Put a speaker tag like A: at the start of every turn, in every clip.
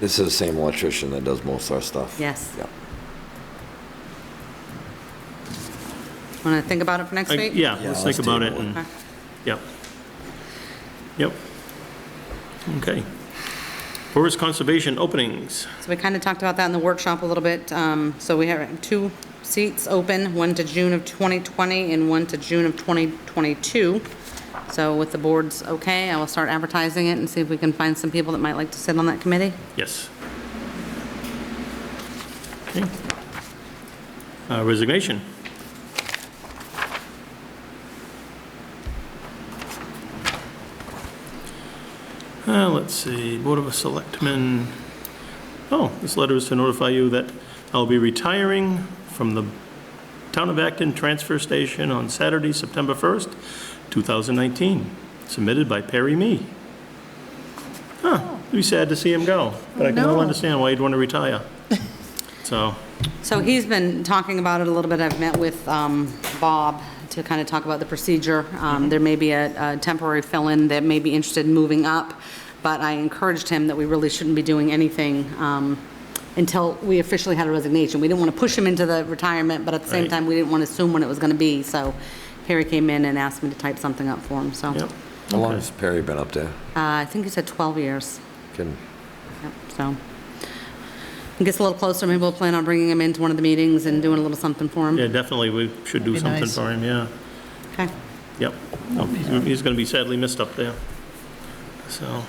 A: This is the same electrician that does most of our stuff.
B: Yes.
A: Yeah.
B: Want to think about it for next
C: I-
B: week?
C: Yeah,
A: Yeah,
C: let's
A: let's
C: think about it,
A: table it.
C: and,
B: Okay.
C: yep. Yep. Okay. Forest Conservation openings.
B: So we kind of talked about that in the workshop a little bit. Um, So we have two seats open, one to June of 2020 and one to June of 2022. So with the board's okay, I will start advertising it and see if we can find some people that might like to sit on that committee.
C: Yes. Okay. Uh, Resignation. Uh, Let's see, Board of Selectmen. Oh, this letter is to notify you that I'll be retiring from the Town of Acton Transfer Station on Saturday, September 1st, 2019, submitted by Perry Me. Huh, it'd be sad to see him go, but I can well
B: No.
C: understand why you'd want to retire. So,
B: So he's been talking about it a little bit. I've met with um, Bob to kind of talk about the procedure. Um, There may be a a temporary fill-in that may be interested in moving up, but I encouraged him that we really shouldn't be doing anything um, until we officially had a resignation. We didn't want to push him into the retirement, but at the same
C: Right.
B: time, we didn't want to assume when it was going to be. So Perry came in and asked me to type something up for him, so.
C: yep.
A: How long has Perry been up there?
B: Uh, I think he said 12 years.
A: Can,
B: Yep, So, it gets a little closer, maybe we'll plan on bringing him into one of the meetings and doing a little something for him.
C: Yeah, definitely, we should do
D: That'd be
C: something
D: nice.
C: for him, yeah.
B: Okay.
C: Yep. No, he's- He's going to be sadly missed up there. So.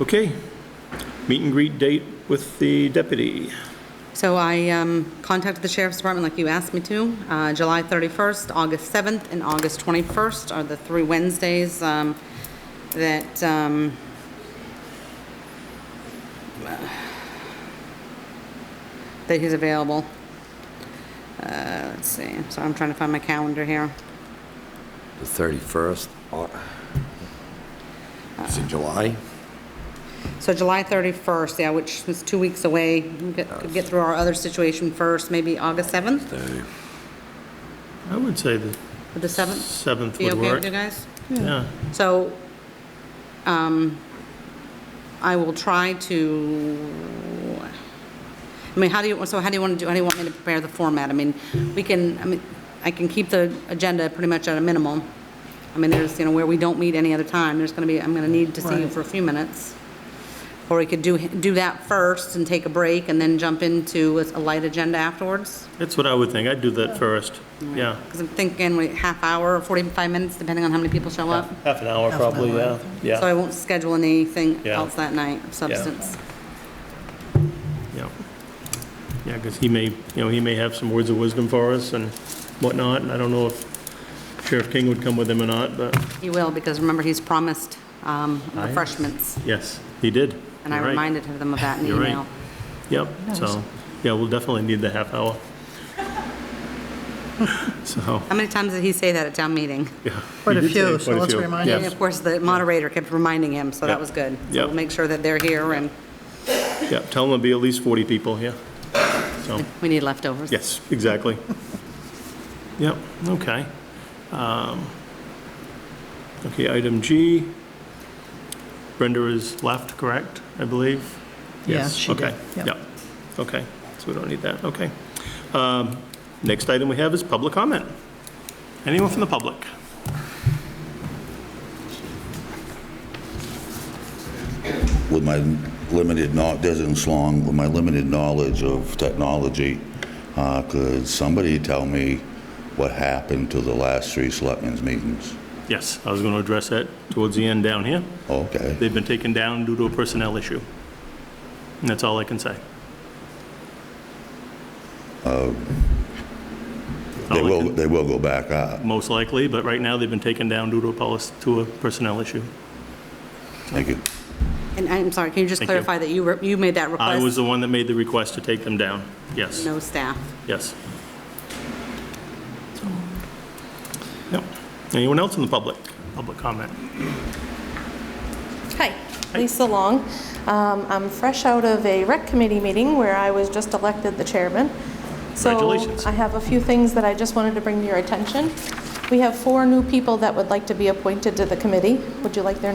C: Okay. Meet and greet date with the deputy.
B: So I um, contacted the sheriff's department like you asked me to. Uh, July 31st, August 7th, and August 21st are the three Wednesdays um, that, um, that he's available. Uh, Let's see, so I'm trying to find my calendar here.
A: the 31st? Au- Is it July?
B: So July 31st, yeah, which is two weeks away. We Get could get through our other situation first, maybe August 7th
A: They-
C: I would say the
B: or the 7th.
C: 7th
B: Be
C: would
B: okay with you
C: work.
B: guys?
C: Yeah.
B: So, um, I will try to, I mean, how do you, so how do you want to do, how do you want me to prepare the format? I mean, we can, I mean, I can keep the agenda pretty much at a minimum. I mean, there's, you know, where we don't meet any other time, there's gonna be, I'm gonna need to see you
D: Right.
B: for a few minutes. Or we could do, do that first and take a break and then jump into a light agenda afterwards.
C: That's what I would think. I'd do that first. Yeah.
B: Because I'm thinking, wait, half hour, 45 minutes, depending on how many people show up.
C: Half an hour
D: Half an
C: probably, yeah.
D: hour.
B: So I
C: Yeah.
B: won't schedule anything
C: Yeah.
B: else that night of substance.
C: Yeah, Yeah, because he may, you know, he may have some words of wisdom for us and whatnot, and I don't know if Sheriff King would come with him or not, but
B: He will, because remember, he's promised um,
C: Aye.
B: refreshments,
C: yes, he did.
B: and I
C: You're right.
B: reminded him of that in the
C: You're right.
B: email.
C: Yep, so, yeah, we'll definitely need the half hour. So,
B: How many times did he say that at town meeting?
C: yeah.
D: Quite
C: he
D: a
C: did say
D: few, so
C: quite a
D: let's
C: few.
D: remind
C: Yes,
B: And of course, the moderator kept reminding him, so
C: Yeah.
B: that was good. So
C: Yeah.
B: we'll make sure that they're here, and
C: Yeah, tell him there'll be at least 40 people, yeah. So,
B: we need leftovers.
C: yes, exactly. Yep, okay. Um, Okay, item G. Brenda is left, correct, I believe?
D: Yeah,
C: Yes,
D: she did,
C: okay,
D: yep.
C: Yep, okay, so we don't need that, okay. Um, Next item we have is public comment. Anyone from the public?
E: with my limited, kno- doesn't slong, with my limited knowledge of technology, uh, could somebody tell me what happened to the last three selectmen's meetings?
C: Yes, I was going to address that towards the end down here.
E: Okay,
C: They've been taken down due to a personnel issue. And that's all I can say.
E: they will, they will go back up.
C: Most likely, but right now they've been taken down due to a policy, to a personnel issue.
E: Thank you.
B: And I'm sorry, can you just
C: Thank you.
B: clarify that you, were- you made that
C: I was
B: request?
C: the one that made the request to take them down. Yes,
B: No staff.
C: yes. Yep. Anyone else in the public? Public comment?
F: Hi, Lisa Long. Um, I'm fresh out of a rec committee meeting where I was just elected the chairman.
C: Congratulations.
F: So I have a few things that I just wanted to bring to your attention. We have four new people that would like to be appointed to the committee. Would you like their names